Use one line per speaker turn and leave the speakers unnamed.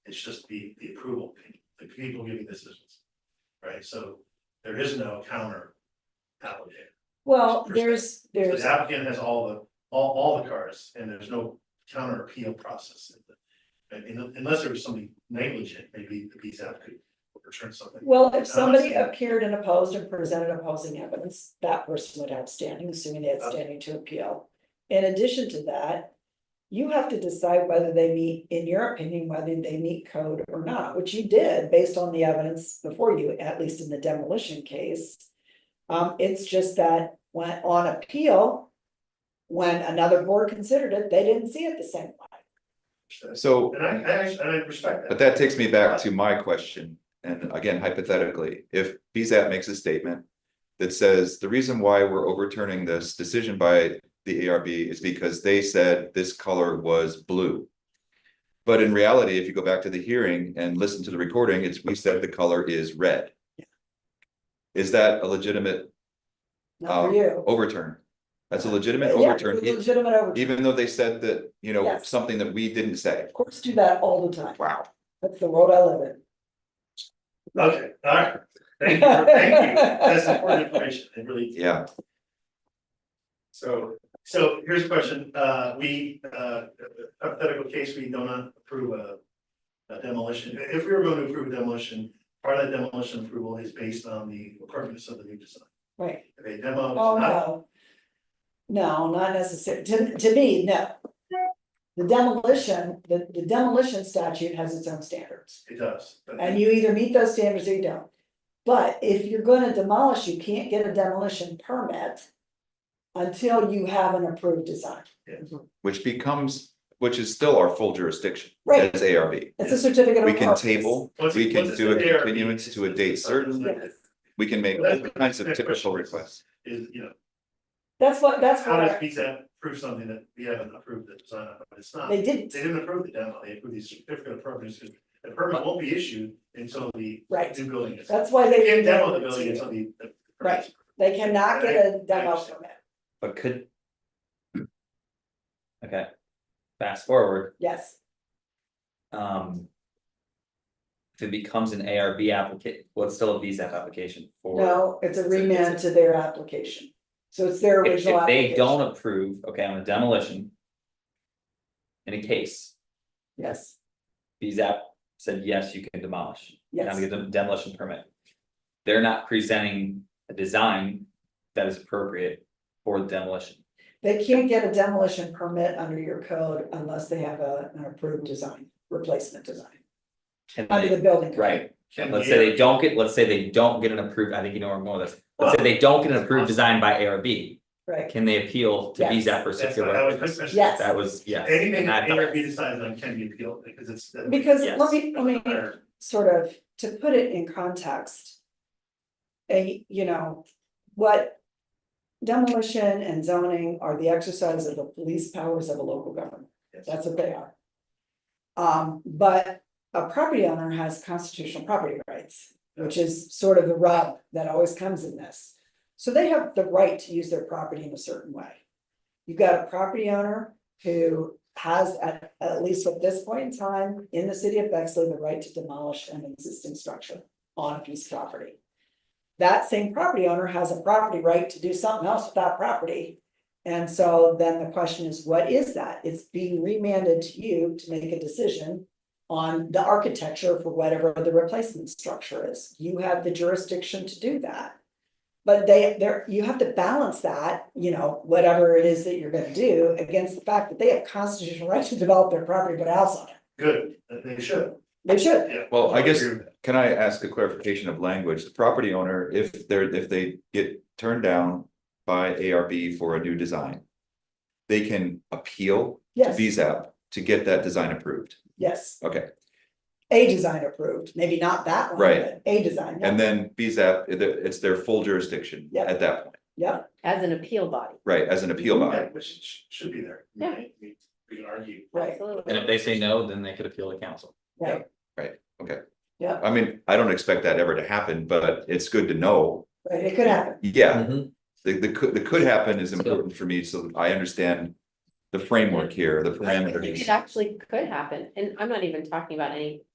It's just the, the approval, the people giving decisions. Right, so there is no counter applicant.
Well,
Percent.
there's,
So
there's,
the applicant has all the, all, all the cards and there's no counter appeal process. And- and Unless there was somebody negligent, maybe the PSAP could return something.
well, if somebody
Honestly.
appeared and opposed and presented opposing evidence, that person would have standing, assuming they had standing to appeal. In addition to that, you have to decide whether they meet, in your opinion, whether they meet code or not, which you did based on the evidence before you, at least in the demolition case. Um, it's just that when on appeal, when another board considered it, they didn't see it the same way.
So,
And I, I, actually- and I respect that.
but that takes me back to my question, and again hypothetically, if BZAP makes a statement. That says the reason why we're overturning this decision by the ARB is because they said this color was blue. But in reality, if you go back to the hearing and listen to the recording, it's we said the color is red. Is that a legitimate
Not
Um,
for you.
overturn? That's a legitimate
Yeah,
overturn, e-
Legitimate overturn.
even though they said that, you know,
Yes.
something that we didn't say.
Courts do that all the time.
Wow.
That's the world I live in.
Okay, all right. Thank you, for- thank you. That's important information. It really is.
Yeah,
So, so here's a question, uh, we, uh, hypothetical case, we do not approve a. A demolition, if we were going to approve a demolition, part of that demolition approval is based on the requirements of the new design.
Right.
If a demo is
Oh,
not,
no. No, not necessarily. To, to me, no. The demolition, the, the demolition statute has its own standards.
it does, but
And you either meet those standards or you don't. But if you're gonna demolish, you can't get a demolition permit until you have an approved design.
which becomes, which is still our full jurisdiction.
Right.
As ARB.
It's a certificate of.
We can
purpose.
table,
once-
we
once
can
it's
do a
there,
continuance
it's-
to a date certain,
Yes.
we can make all kinds of typical requests.
Is, you know,
That's what, that's
how does
what,
PSAP approve something that we haven't approved the design of, but it's not.
they
They
didn't,
didn't approve the demo, they approved the certificate of purpose, the permit won't be issued until the
right.
new building is.
That's why
They
they.
can't
didn't
demo the
do it to
building
you.
until the. the-
Right. They cannot get a demo
understand.
permit,
But could. Okay, fast forward,
yes,
um. If it becomes an ARB application, well, it's still a VSAP application for.
no, it's a
It's a- it's a-
remand to their application. So it's their
If
original
if they
application,
don't approve, okay, on a demolition. In a case,
yes,
VSAP said, yes, you can demolish, you have to
yes,
get a demolition permit. They're not presenting a design that is appropriate for the demolition.
they can't get a demolition permit under your code unless they have a, an approved design, replacement design.
Can
Under
they-
the building. code.
right,
Can
Let's
the-
say they don't get, let's say they don't get an approved, I think you know where I'm going with this, let's say they don't get an approved design by ARB,
Right,
can they appeal to
Yes.
VSAP for
That's what I
circular?
was questioning.
Yes.
That was, yeah,
Anything
Not
that ARB decides on can be appealed because it's. uh,
because
Yes.
let me, let me sort of, to put it in context. A, you know, what demolition and zoning are the exercise of the police powers of a local government.
Yes.
That's what they are. Um, but a property owner has constitutional property rights, which is sort of the rub that always comes in this. So they have the right to use their property in a certain way. You've got a property owner who has, at, at least at this point in time, in the city of Bexley, the right to demolish an existing structure on a piece of property. That same property owner has a property right to do something else with that property. And so then the question is, what is that? It's being remanded to you to make a decision on the architecture for whatever the replacement structure is. You have the jurisdiction to do that. But they, there, you have to balance that, you know, whatever it is that you're gonna do against the fact that they have constitutional right to develop their property, but house on it.
Good, that they should,
They should.
yeah.
Well, I guess-
agree with that.
Can I ask a clarification of language? The property owner, if they're, if they get turned down by ARB for a new design. They can appeal to
Yes,
BZAP to get that design approved.
yes.
Okay,
A design approved, maybe not that one,
Right.
but a design. yeah.
and then BZAP, it- it's their full jurisdiction
Yeah.
at that point,
Yeah,
As an appeal body,
right, as an appeal body.
Yeah, Which sh- should be there.
Yeah.
We- We we can argue.
right,
absolutely.
and if they say no, then they could appeal to council.
right,
I mean, I don't expect that ever to happen, but it's good to know.
right. It could happen.
Yeah, the, the could, the could happen is important for me, so I understand the framework here, the
I think It
parameters.
actually could happen, and I'm not even talking about any